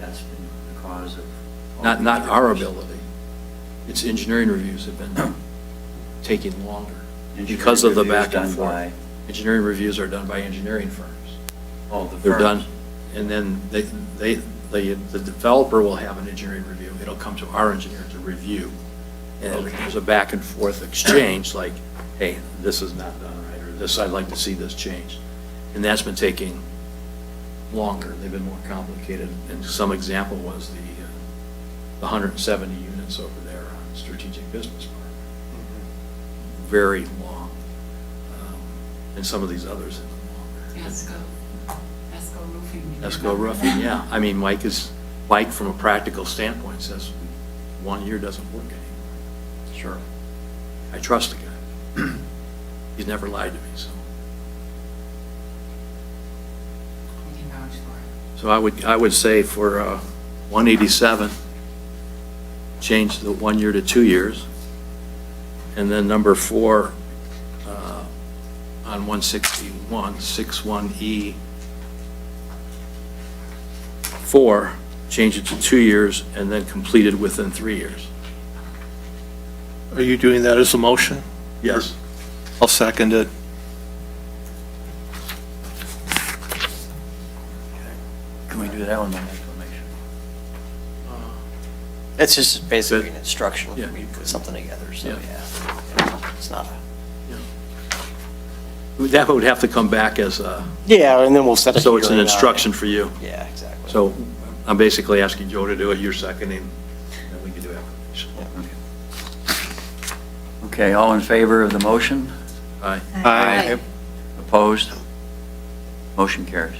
has been the cause of. all Not, the not our controversy. ability. It's engineering reviews have been taking longer Engineering because of the reviews back and done by- forth. Engineering reviews are done by engineering firms. Oh, the They're done, firms. and then they, they, they, the developer will have an engineering review. It'll come to our engineer to review. And Okay. there's a back and forth exchange, like, hey, this is not done right, or this, I'd like to see this changed. And that's been taking longer, they've been more complicated. And some example was the, uh, the 170 units over there on Strategic Business Park. Very long. Um, And some of these others have been longer. Esco, Esco Roofing. Esco Roofing, yeah. I mean, Mike is, Mike, from a practical standpoint, says one year doesn't work anymore. Sure. I trust the guy. He's never lied to me, so. We can vouch for So I would, I would say for uh, 187, change the one year to two years. And then number four, uh, on 161, 61E, four, change it to two years and then completed within three years. Are you doing that as a motion? Yes. I'll second it. Can we do that one by acclamation? It's just basically an Good. instruction, Yeah. we put something together, so, Yeah. yeah. It's not a. That would have to come back as a, Yeah, and uh, then we'll set a so it's an hearing on it. instruction for you. Yeah, exactly. So I'm basically asking Joe to do it, you're seconding, and we can do application. Okay. Okay, all in favor of the motion? Aye. Aye. Opposed? Motion carries.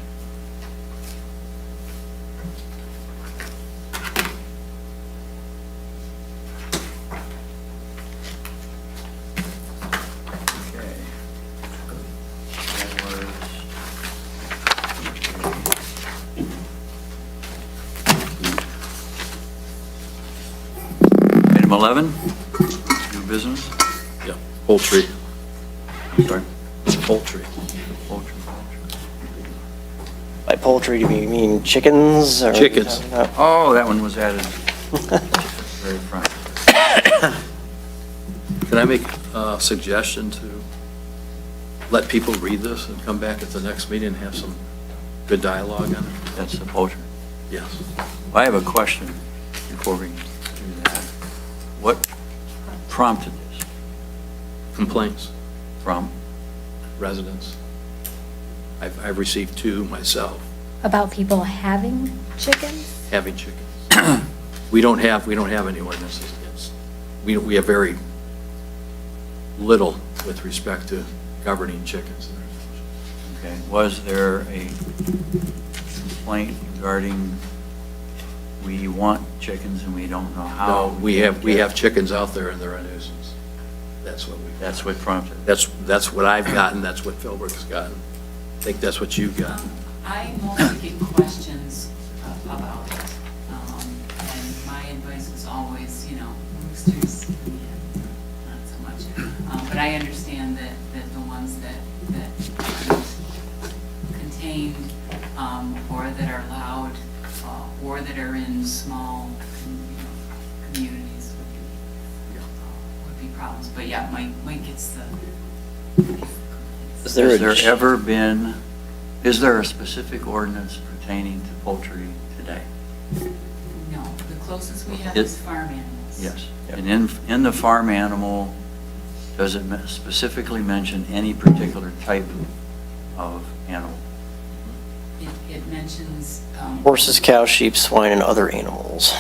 Okay. That was- Item 11, new business? Yeah, poultry, I'm sorry. Poultry, poultry. poultry. By poultry, do you mean chickens or? Chickens. No. Oh, that one was added very front. Can I make a suggestion to let people read this and come back at the next meeting and have some good dialogue on it? That's the poultry. Yes. I have a question before we do that. What prompted this Complaints, from? residents. I've, I've received two myself, About people having chickens? having chickens. We don't have, we don't have any ordinances against, we, we have very little with respect to governing chickens. Okay, was there a complaint regarding we want chickens and we don't know how? No, we have, we get- have chickens out there and they're a nuisance. That's what we. That's what prompted it. That's, that's what I've gotten, that's what Philbrook's gotten. I think that's what you've it. got. Um, I mostly get questions a- about it, um, and my advice was always, you know, roosters, yeah, not so much. Um, But I understand that, that the ones that, that aren't contained, um, or that are loud, uh, or that are in small, you know, communities would be uh, would be problems, but yeah, Mike, Mike gets the. Is there a- Has there ever been, is there a specific ordinance pertaining to poultry today? No, the closest we have is It- farm animals. Yes. Yep. And in, in the farm animal, does it men- specifically mention any particular type of animal? It, it mentions, um. Horses, cows, sheep, swine, and other animals.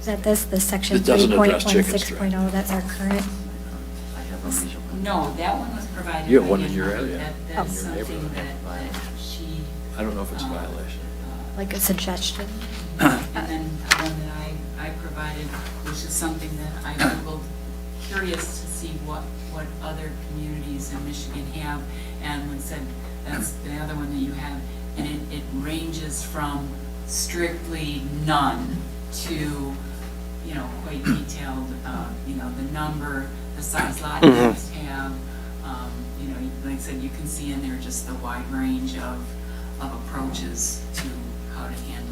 Is that this, the section It doesn't address chickens, 3.16.0, oh, that's our current? I have a reason. No, that one was provided. You have one by in your Ann-Marie. area, That, Oh. that is in your something neighborhood. that, that she. I don't know if it's a um, violation. uh, Like a suggestion? And then one that I, I provided, which is something that I Googled, curious to see what, what other communities in Michigan have. And it said, that's the other one that you have, and it, it ranges from strictly none to, you know, quite detailed, uh, you know, the number, the size lot you Mhm. must have. Um, You know, like I said, you can see in there just the wide range of, of approaches to how to handle